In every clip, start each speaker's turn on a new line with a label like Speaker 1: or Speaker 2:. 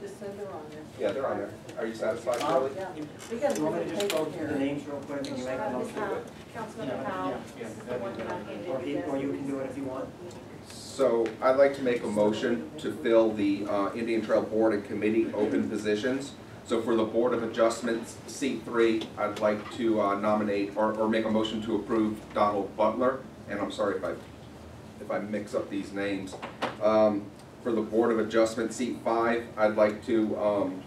Speaker 1: just said they're on there.
Speaker 2: Yeah, they're on there. Are you satisfied,
Speaker 3: Um,
Speaker 2: Charlie?
Speaker 1: Yeah, we got a
Speaker 3: You want me to
Speaker 1: different
Speaker 3: just
Speaker 1: paper
Speaker 3: go through the
Speaker 1: here.
Speaker 3: names real quick and you make a
Speaker 4: Uh, Ms.
Speaker 3: motion?
Speaker 4: Howe,
Speaker 3: Yeah,
Speaker 4: Councilmember Howe,
Speaker 3: yeah, yeah,
Speaker 4: this is the
Speaker 3: that'd be
Speaker 4: one that I handed
Speaker 3: better. Or he-
Speaker 4: you.
Speaker 3: or you can do it if you want.
Speaker 2: So I'd like to make a motion to fill the uh, Indian Trail Board and Committee open positions. So for the Board of Adjustments, seat three, I'd like to uh, nominate or, or make a motion to approve Donald Butler. And I'm sorry if I, if I mix up these names. Um, For the Board of Adjustment, seat five, I'd like to, um,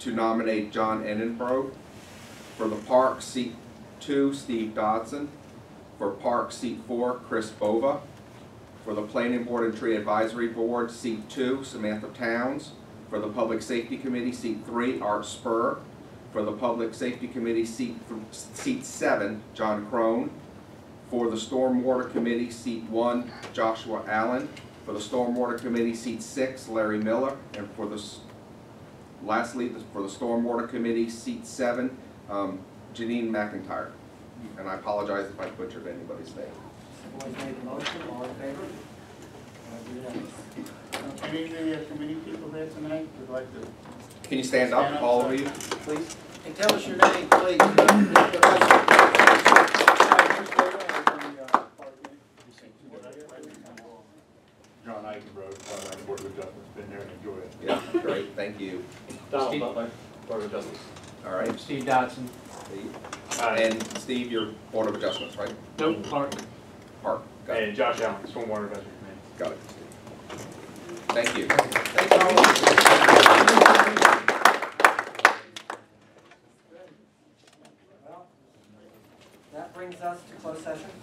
Speaker 2: to nominate John Enenbro. For the Park, seat two, Steve Dodson. For Park, seat four, Chris Bova. For the Planning Board and Tree Advisory Board, seat two, Samantha Towns. For the Public Safety Committee, seat three, Art Spur. For the Public Safety Committee, seat, th- seat seven, John Crone. For the Stormwater Committee, seat one, Joshua Allen. For the Stormwater Committee, seat six, Larry Miller. And for the, s- lastly, the- for the Stormwater Committee, seat seven, um, Janine McIntyre. And I apologize if I butchered anybody's name.
Speaker 3: Boys made the motion, all in favor? Uh, do that.
Speaker 5: Any of the uh, committee people here tonight would like to
Speaker 2: Can you stand up, all of you, please?
Speaker 5: And tell us your name, please.
Speaker 6: John Eichenbrod, uh, Board of Adjustments, been there and enjoyed it.
Speaker 2: Yeah, great, thank you.
Speaker 6: Donald
Speaker 2: Steve-
Speaker 6: Butler, Board of Adjustments.
Speaker 2: All right,
Speaker 7: Steve Dodson.
Speaker 2: Steve. and Steve, your Board of Adjustments, right?
Speaker 7: Nope, Clark.
Speaker 2: Park, got it,
Speaker 6: And Josh Allen, Stormwater Advisory Committee.
Speaker 2: got it. Thank you.
Speaker 3: Well, That brings us to closed session.